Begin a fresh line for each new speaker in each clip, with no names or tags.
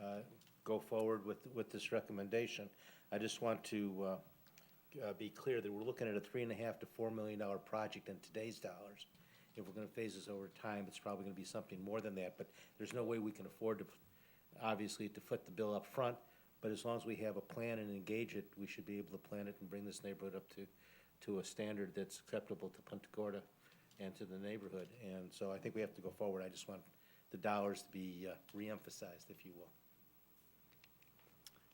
uh, go forward with, with this recommendation. I just want to uh, uh, be clear that we're looking at a three and a half to four million dollar project in today's dollars. If we're gonna phase this over time, it's probably gonna be something more than that, but there's no way we can afford to, obviously, to foot the bill up front. But as long as we have a plan and engage it, we should be able to plan it and bring this neighborhood up to, to a standard that's acceptable to Punta Gorda and to the neighborhood. And so I think we have to go forward. I just want the dollars to be uh, reemphasized, if you will.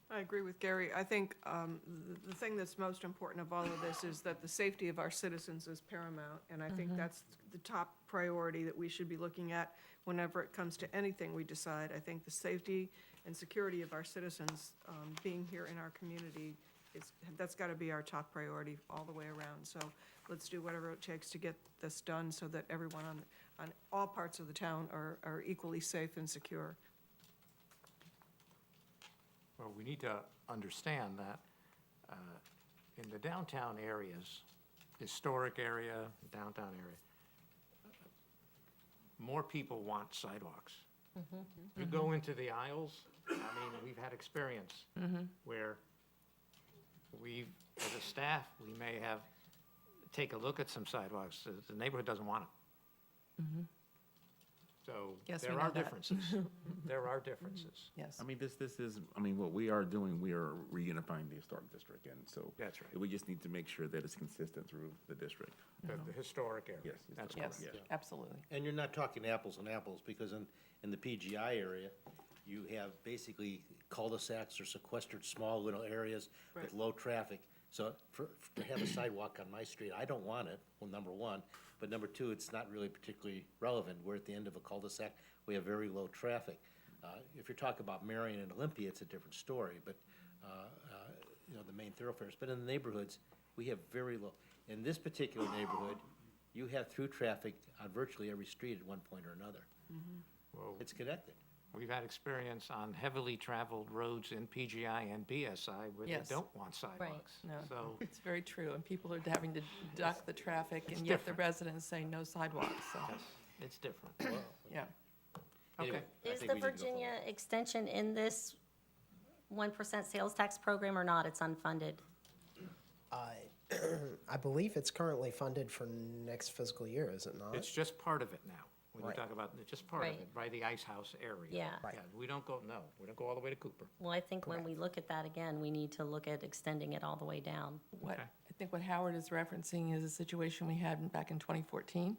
I agree with Gary. I think um, th- the thing that's most important of all of this is that the safety of our citizens is paramount. And I think that's the top priority that we should be looking at whenever it comes to anything we decide. I think the safety and security of our citizens um, being here in our community is, that's got to be our top priority all the way around. So let's do whatever it takes to get this done so that everyone on, on all parts of the town are, are equally safe and secure.
Well, we need to understand that uh, in the downtown areas, historic area, downtown area, more people want sidewalks.
Mm-hmm.
You go into the aisles, I mean, we've had experience
Mm-hmm.
where we, as a staff, we may have, take a look at some sidewalks, the- the neighborhood doesn't want them. So
Mm-hmm. Yes, we
there
know
are
that.
differences. There are differences.
Yes.
I mean, this, this is, I mean, what we are doing, we are reunifying the historic district, and so.
That's right.
We just need to make sure that it's consistent through the district.
The the historic area.
Yes,
That's
historic,
correct.
Yes, absolutely.
And you're not talking apples and apples, because in, in the PGI area, you have basically cul-de-sacs or sequestered small little areas with
Right.
low traffic. So for, for- to have a sidewalk on my street, I don't want it, well, number one. But number two, it's not really particularly relevant. We're at the end of a cul-de-sac, we have very low traffic. Uh, If you're talking about Marion and Olympia, it's a different story, but, uh, uh, you know, the main thoroughfares. But in the neighborhoods, we have very low, in this particular neighborhood, you have through traffic on virtually every street at one point or another.
Mm-hmm.
Well,
It's connected.
We've had experience on heavily traveled roads in PGI and BSI where they
Yes.
don't want sidewalks.
No,
So
it's very true, and people are having to duck the traffic, and yet the
different.
residents say no sidewalks, so,
it's different.
yeah.
Okay.
I think we
Is the
need to go forward.
Virginia extension in this one percent sales tax program or not? It's unfunded.
I believe it's currently funded for next fiscal year, is it not?
It's just part of it now. When you
Right.
talk about, it's just part of
Right.
it, by the Ice House area.
Yeah. Right.
We don't go, no, we don't go all the way to Cooper.
Well, I think when we look at that again, we need to look at extending it all the way down.
What,
Okay.
I think what Howard is referencing is a situation we had back in 2014,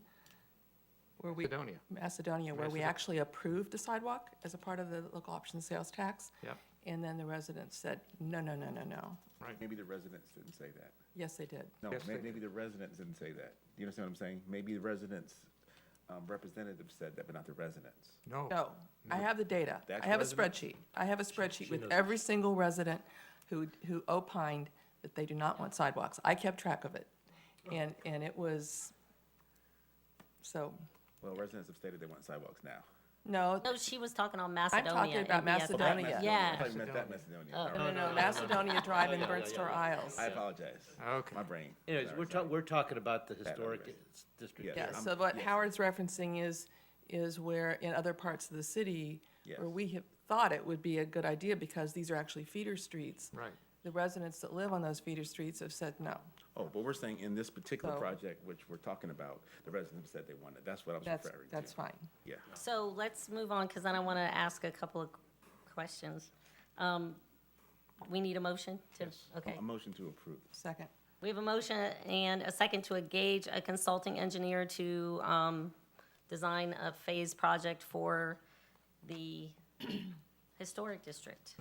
where we.
Macedonia.
Macedonia, where we
Macedo-
actually approved a sidewalk as a part of the local option sales tax.
Yep.
And then the residents said, no, no, no, no, no.
Maybe the residents didn't say that.
Yes, they did.
No,
Yes,
may-
they-
maybe the residents didn't say that. You understand what I'm saying? Maybe the residents, um, representatives said that, but not the residents.
No.
No, I have the data.
That's
I have a
resident?
spreadsheet. I have a spreadsheet with every single resident who, who opined that they do not want sidewalks. I kept track of it. And, and it was, so,
Well, residents have stated they want sidewalks now.
no,
No, she was talking on
I'm
Macedonia.
talking about
and BSI.
That
Macedonia.
Macedonia. I
Yeah.
thought you meant that Macedonia. All
no,
right.
no, Macedonia Drive and Birdstore Isles.
I apologize.
Okay.
My brain.
Anyways,
Sorry,
we're
sorry.
talking, we're talking about the historic
Bad
s- district.
Yeah,
Yeah,
I'm-
so what
yes.
Howard's referencing is, is where in other parts of the city, where
Yes.
we have thought it would be a good idea because these are actually feeder streets.
Right.
The residents that live on those feeder streets have said no.
Oh, but we're saying in this particular
So-
project, which we're talking about, the residents said they wanted. That's what I was
That's,
referring to.
that's fine.
Yeah.
So let's move on because then I want to ask a couple of questions. Um, we need a motion to, okay.
A motion to approve.
Second.
We have a motion and a second to engage a consulting engineer to um, design a phase project for the historic district.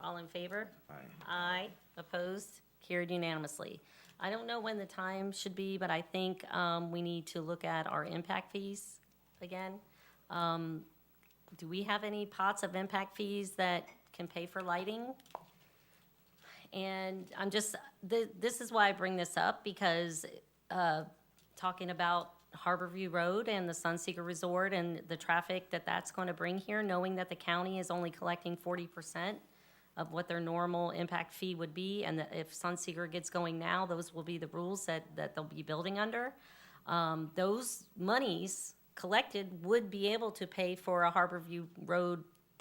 All in favor?
Aye.
Aye. Opposed? Carried unanimously. I don't know when the time should be, but I think um, we need to look at our impact fees again. Um, Do we have any pots of impact fees that can pay for lighting? And I'm just, th- this is why I bring this up, because uh, talking about Harborview Road and the Sunseeker Resort and the traffic that that's going to bring here, knowing that the county is only collecting forty percent of what their normal impact fee would be, and that if Sunseeker gets going now, those will be the rules that, that they'll be building under. Um, Those monies collected would be able to pay for a Harborview Road